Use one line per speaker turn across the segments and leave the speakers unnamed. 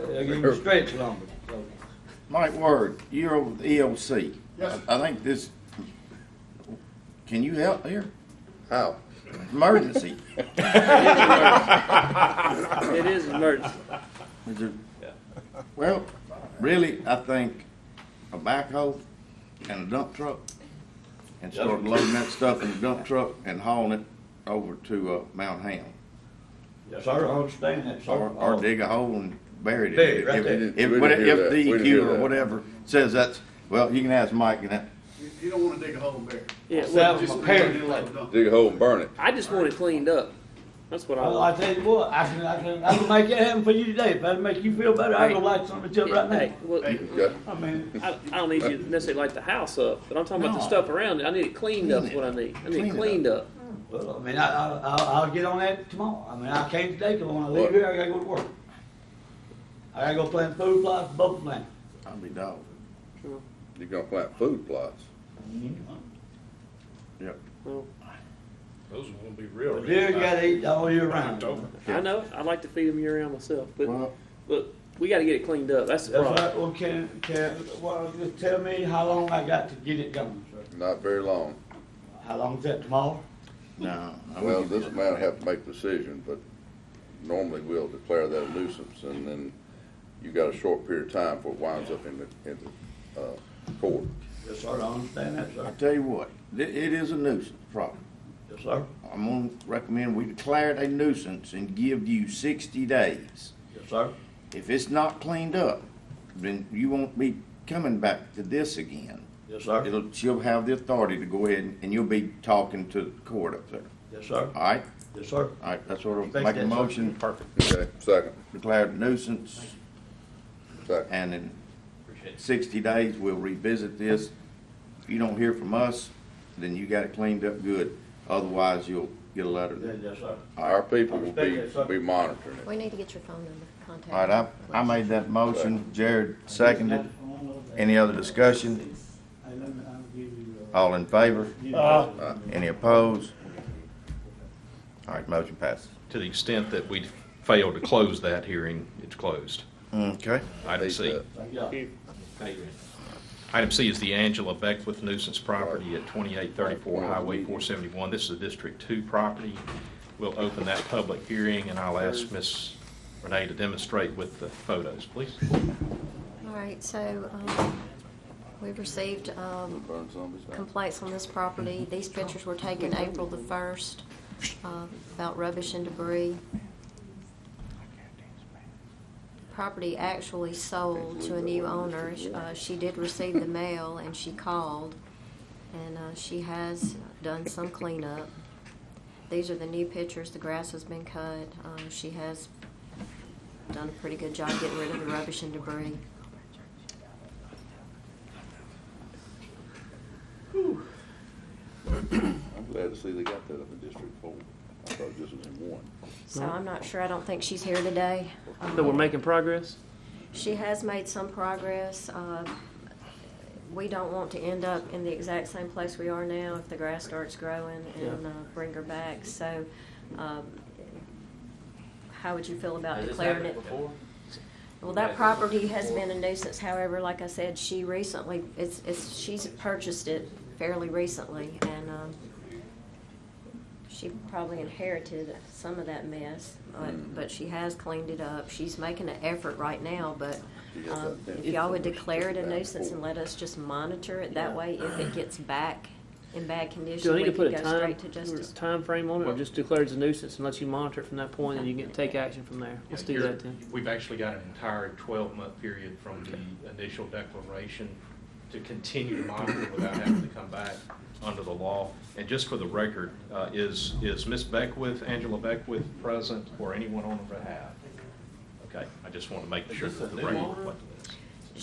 They'll give you stretch lumber, so.
Mike E Word, you're over the EOC.
Yes, sir.
I I think this, can you help here?
How?
Emergency.
It is an emergency.
Is there- Well, really, I think a backhoe and a dump truck and start loading that stuff in the dump truck and hauling it over to, uh, Mount Ham.
Yes, sir, I understand that, sir.
Or, or dig a hole and bury it.
Bury it right
If-
there.
if-
We didn't do
If,
that. We
if
didn't
DEQ
do
or
that.
whatever says that's, well, you can ask Mike and that,
You, you don't wanna dig a hole in there.
Yeah,
That
well,
was
Just
my
leave
parents'
it like a dump.
Dig a hole and burn it.
I just want it cleaned up. That's what I
Well, I
want.
tell you what, I can, I can, I can make that happen for you today. If that'd make you feel better, I'd go light something up right
Hey,
now.
well, I,
Hey.
You got-
I mean,
I don't need you to necessarily light the house up, but I'm talking about the
No.
stuff around it. I need it cleaned up, is what I need. I
Clean
need
it
it
up.
cleaned up.
well, I mean, I, I, I'll, I'll get on that tomorrow. I mean, I can't today, cause when I leave here, I gotta go to work. I gotta go plant food plots, bubble plant.
I'll be dog.
You gonna plant food plots.
Mm-hmm.
Yep.
Well,
Those are gonna be real.
But deer gotta eat all year round.
October.
I know, I like to feed them year round myself, but,
Well,
but we gotta get it cleaned up. That's the
That's
problem.
right, well, can, can, well, just tell me how long I got to get it done, sir.
Not very long.
How long is that tomorrow?
no. I wouldn't
Well,
give
this
you-
man have to make a decision, but normally we'll declare that a nuisance and then you got a short period of time before it winds up in the, in the, uh, court.
Yes, sir, I understand that,
I
sir.
tell you what, it, it is a nuisance problem.
Yes, sir.
I'm gonna recommend we declare it a nuisance and give you sixty days.
Yes, sir.
If it's not cleaned up, then you won't be coming back to this again.
Yes, sir.
It'll, she'll have the authority to go ahead and you'll be talking to the court up there.
Yes, sir.
All right,
Yes, sir.
all right, that's what I'll
Thank
make a
you, sir.
motion. Perfect.
Okay, second,
Declared nuisance
second.
and in sixty days, we'll revisit this. If you don't hear from us, then you got it cleaned up good. Otherwise, you'll get a letter.
Yeah, Yes, sir.
Our people will be, be monitoring it.
We need to get your phone number, contact.
All right, I, I made that motion, Jared seconded. Any other discussion?
uh,
All in favor? Uh, Any opposed? All right, motion passes.
To the extent that we fail to close that hearing, it's closed.
Okay.
Item C.
Thank you.
Item C is the Angela Beckwith nuisance property at 2834 Highway 471. This is a District 2 property. We'll open that public hearing, and I'll ask Ms. Renee to demonstrate with the photos, please.
All right, so, um, we received, um,
Burn zombies out.
complaints on this property. These pictures were taken April the first, uh, about rubbish and debris. Property actually sold to a new owner. Uh, she did receive the mail and she called, and, uh, she has done some cleanup. These are the new pictures. The grass has been cut. Um, she has done a pretty good job getting rid of the rubbish and debris.
I'm glad to see they got that up in District Four. I thought this was in one.
So I'm not sure, I don't think she's here today. Um,
So we're making progress?
She has made some progress. Uh, We don't want to end up in the exact same place we are now if the grass starts growing and uh, bring her back, so um, how would you feel about declaring it? Well, that property has been a nuisance, however, like I said, she recently, it's, it's, she's purchased it fairly recently, and um, she probably inherited some of that mess,
Mm-hmm.
but, but she has cleaned it up. She's making an effort right now, but um, if y'all would declare it a nuisance and let us just monitor it, that way if it gets back in bad
Do
condition,
I
we
need to
can
put a
go
time,
straight to justice.
time frame on it, or just declare it's a nuisance and let you monitor it from that point, and you can take action from there? Let's do
You're-
that then.
We've actually got an entire twelve-month period from the initial declaration to continue to monitor without having to come back under the law.
And just for the record, uh, is, is Ms. Beckwith, Angela Beckwith, present or anyone on her behalf? Okay, I just want to make sure that the record reflects this.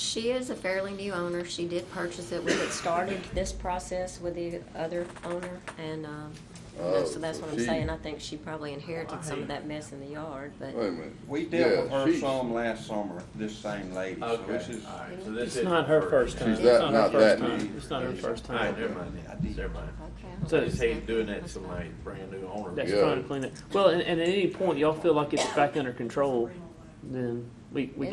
She is a fairly new owner. She did purchase it. We had started this process with the other owner, and um, you know,
Oh,
so that's what I'm
she- Oh,
saying. I think she probably inherited some of that mess in the yard, but
Wait a minute.
We dealt with
Yeah,
her
she-
some last summer, this same lady, so this is.
It's not her first time.
She's
It's
that-
not
not
her first
that
time.
new.
It's not her first time.
okay.
So-
I just hate doing that to
That's
Yeah.
trying to clean it. Well, and, and at any point, y'all feel like it's back under control, then we, we